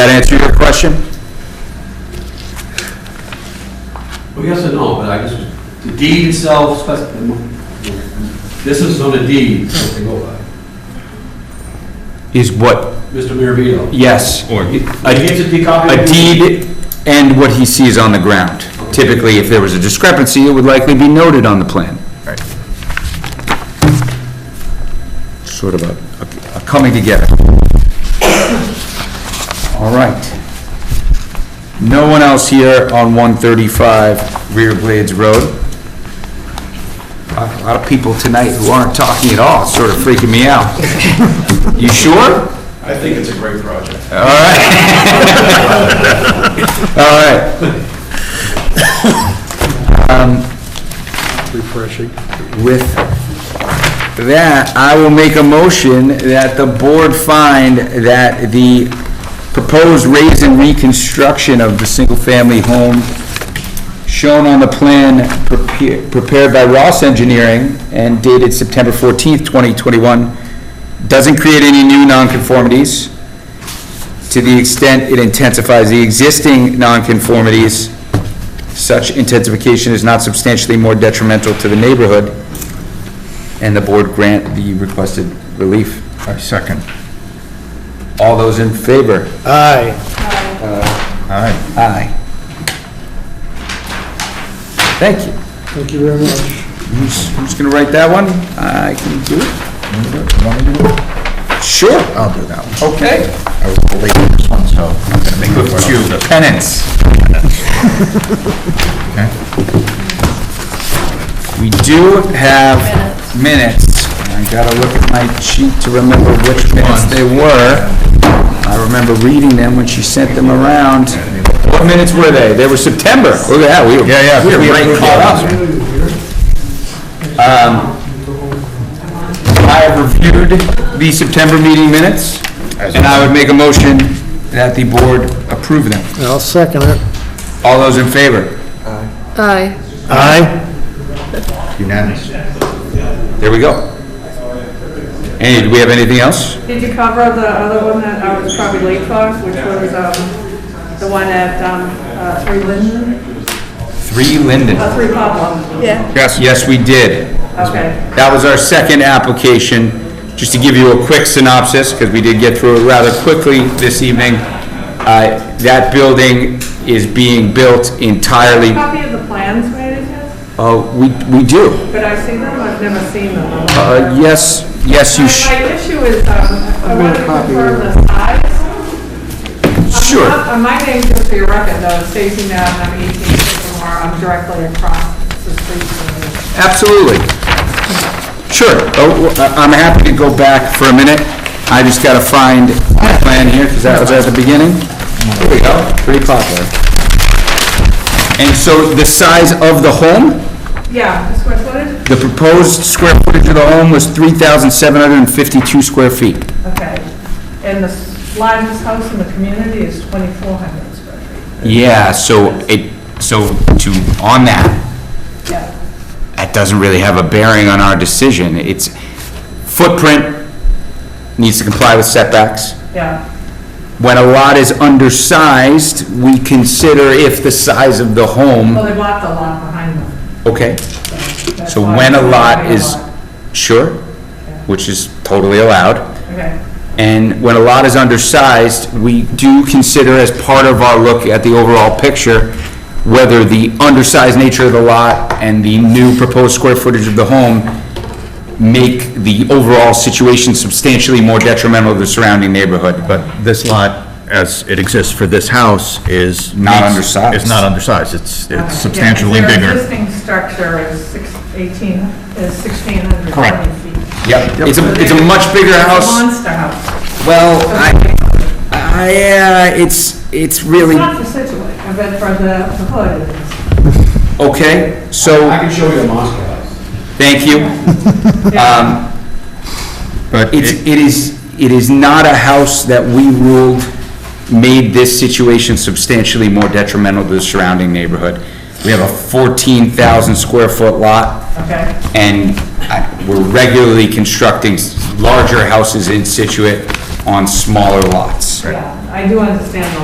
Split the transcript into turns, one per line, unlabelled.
That answer your question?
Well, yes and no, but I just, the deed itself, spec- this is on the deed, what they go by.
Is what?
Mr. Miravito.
Yes.
Or-
He gets
A
a deed copy.
a deed and what he sees on the ground. Typically, if there was a discrepancy, it would likely be noted on the plan. Right. Sort of a, a coming together. All right. No one else here on 135 Rear Blades Road. A lot of people tonight who aren't talking at all, sort of freaking me out. You sure?
I think it's a great project.
All right. All right. Refreshing. With that, I will make a motion that the board find that the proposed raise and reconstruction of the single-family home shown on the plan prepa- prepared by Ross Engineering and dated September 14th, 2021, doesn't create any new nonconformities to the extent it intensifies the existing nonconformities, such intensification is not substantially more detrimental to the neighborhood, and the board grant the requested relief.
I second.
All those in favor?
Aye.
Aye.
Aye. Thank you.
Thank you very much.
Who's, who's gonna write that one? I can do it.
Want me to do it?
Sure.
I'll do that one.
Okay.
I was late on this one, so I'm gonna make
Look
it
at you, penance.
Okay.
We do have minutes. I gotta look at my sheet to remember which minutes they were. I remember reading them when she sent them around. What minutes were they? They were September. Oh, yeah, we were,
Yeah, yeah,
we were
we
right
approved
caught up.
those,
Um, I have reviewed the September meeting minutes, and I would make a motion that the board approve them.
I'll second it.
All those in favor?
Aye.
Aye.
Unanimous.
There we go. Hey, do we have anything else?
Did you cover the other one that I was probably late for, which was, um, the one at, um, uh, Three Linden,
Three Linden.
uh, Three Pablo?
Yeah.
Yes. Yes, we did.
Okay.
That was our second application. Just to give you a quick synopsis, because we did get through it rather quickly this evening, uh, that building is being built entirely,
Copy of the plans, may I just?
uh, we, we do.
Could I see them? I've never seen them.
Uh, yes, yes, you sh-
My issue is, um, I want to confirm the size.
Sure.
Uh, My name, just for your record, though, Stacy Knapp, I'm 18 Sycamore, I'm directly across the street from you.
Absolutely. Sure. Oh, well, I- I'm happy to go back for a minute. I just gotta find my plan here, because that was at the beginning. Here we go, pretty popular. And so the size of the home,
Yeah, the square footage?
the proposed square footage of the home was 3,752 square feet.
Okay. And the s- largest house in the community is 2,400 square feet.
Yeah, so it, so to, on that,
Yeah.
that doesn't really have a bearing on our decision. It's, footprint needs to comply with setbacks.
Yeah,
When a lot is undersized, we consider if the size of the
well,
home,
they bought the lot behind them.
okay?
That's
So
why
when a
it's
lot
gonna be a
is,
lot.
sure, which is totally allowed,
Okay,
and when a lot is undersized, we do consider as part of our look at the overall picture, whether the undersized nature of the lot and the new proposed square footage of the home make the overall situation substantially more detrimental to the surrounding neighborhood, but
But this lot, as it exists for this house, is.
Not undersized.
It's not undersized, it's
okay.
it's substantially
Yeah, 'cause
bigger.
Their existing structure is six- 18, is
Correct.
1,620 feet.
Yep, it's a, it's a
They're-
much bigger
it's a
house.
Monster house.
Well, I, I, uh, it's, it's
It's
really,
not for Situate, I bet for the the hood. it is.
okay, so,
I can show you a monster house.
thank you. Um,
But
it's,
it-
it is, it is not a house that we ruled made this situation substantially more detrimental to the surrounding neighborhood. We have a fourteen thousand square foot lot.
Okay,
and I- we're regularly constructing s- larger houses in Situate on smaller lots.
yeah, I I do understand the